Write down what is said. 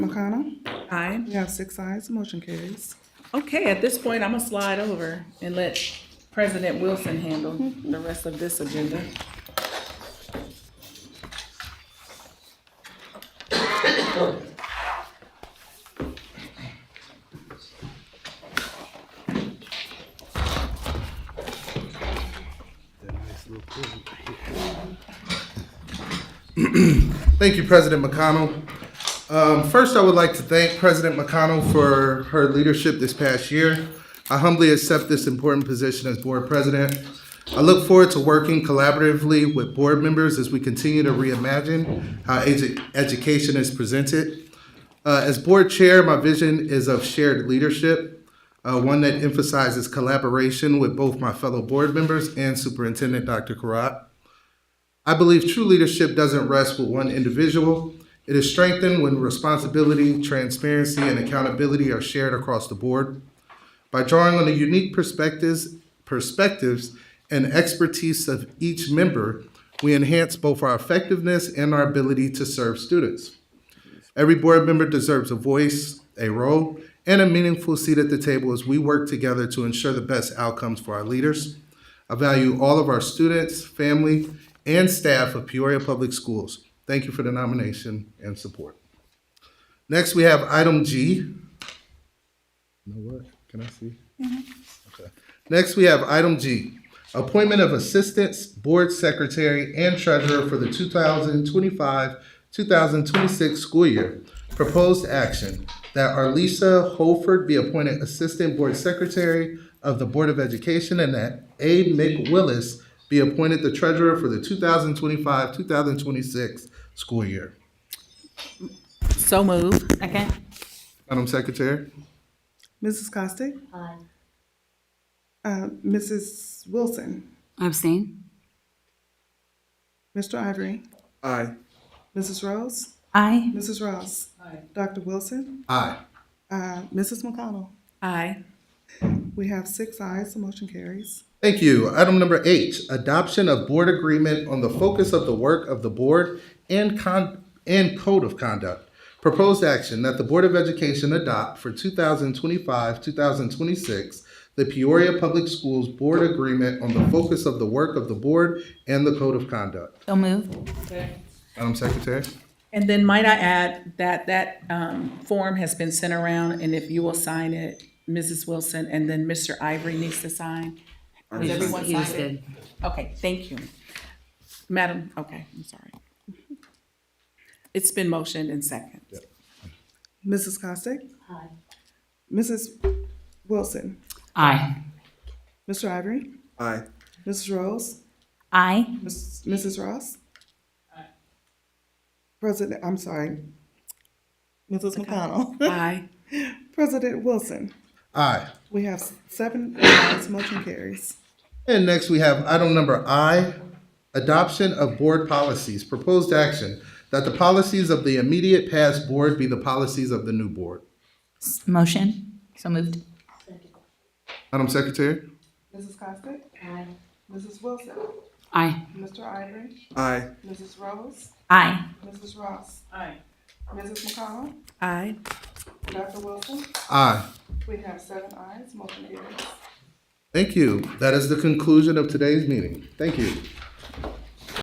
McConnell? Aye. We have six ayes, motion carries. Okay, at this point, I'm gonna slide over and let President Wilson handle the rest of this agenda. Thank you, President McConnell. Um, first, I would like to thank President McConnell for her leadership this past year. I humbly accept this important position as Board President. I look forward to working collaboratively with board members as we continue to reimagine how edu- education is presented. Uh, as Board Chair, my vision is of shared leadership, uh, one that emphasizes collaboration with both my fellow board members and Superintendent Dr. Karat. I believe true leadership doesn't rest with one individual. It is strengthened when responsibility, transparency, and accountability are shared across the board. By drawing on the unique perspectives, perspectives and expertise of each member, we enhance both our effectiveness and our ability to serve students. Every board member deserves a voice, a role, and a meaningful seat at the table as we work together to ensure the best outcomes for our leaders. I value all of our students, family, and staff of Peoria Public Schools. Thank you for the nomination and support. Next, we have item G. You know what? Can I see? Okay. Next, we have item G, appointment of assistants, board secretary, and treasurer for the 2025-2026 school year. Proposed action that Arlisa Holford be appointed assistant board secretary of the Board of Education and that A. Mick Willis be appointed the treasurer for the 2025-2026 school year. So move. Second. Madam Secretary? Mrs. Costick? Aye. Uh, Mrs. Wilson? Abstain. Mr. Ivory? Aye. Mrs. Rose? Aye. Mrs. Ross? Aye. Dr. Wilson? Aye. Uh, Mrs. McConnell? Aye. We have six ayes, the motion carries. Thank you. Item number H, adoption of board agreement on the focus of the work of the board and con, and code of conduct. Proposed action that the Board of Education adopt for two thousand twenty-five, two thousand twenty-six, the Peoria Public Schools Board Agreement on the focus of the work of the board and the code of conduct. So move. Madam Secretary? And then might I add that that um, form has been sent around, and if you will sign it, Mrs. Wilson, and then Mr. Ivory needs to sign. Has everyone He just signed it? did. Okay, thank you. Madam, okay, I'm sorry. It's been motioned and second. Mrs. Costick? Aye. Mrs. Wilson? Aye. Mr. Ivory? Aye. Mrs. Rose? Aye. Miss- Mrs. Ross? President, I'm sorry. Mrs. McConnell? Aye. President Wilson? Aye. We have seven ayes, motion carries. And next, we have item number I, adoption of board policies. Proposed action that the policies of the immediate past board be the policies of the new board. S- Motion. So moved. Madam Secretary? Mrs. Costick? Aye. Mrs. Wilson? Aye. Mr. Ivory? Aye. Mrs. Rose? Aye. Mrs. Ross? Aye. Mrs. McConnell? Aye. Dr. Wilson? Aye. We have seven ayes, motion carries. Thank you. That is the conclusion of today's meeting. Thank you.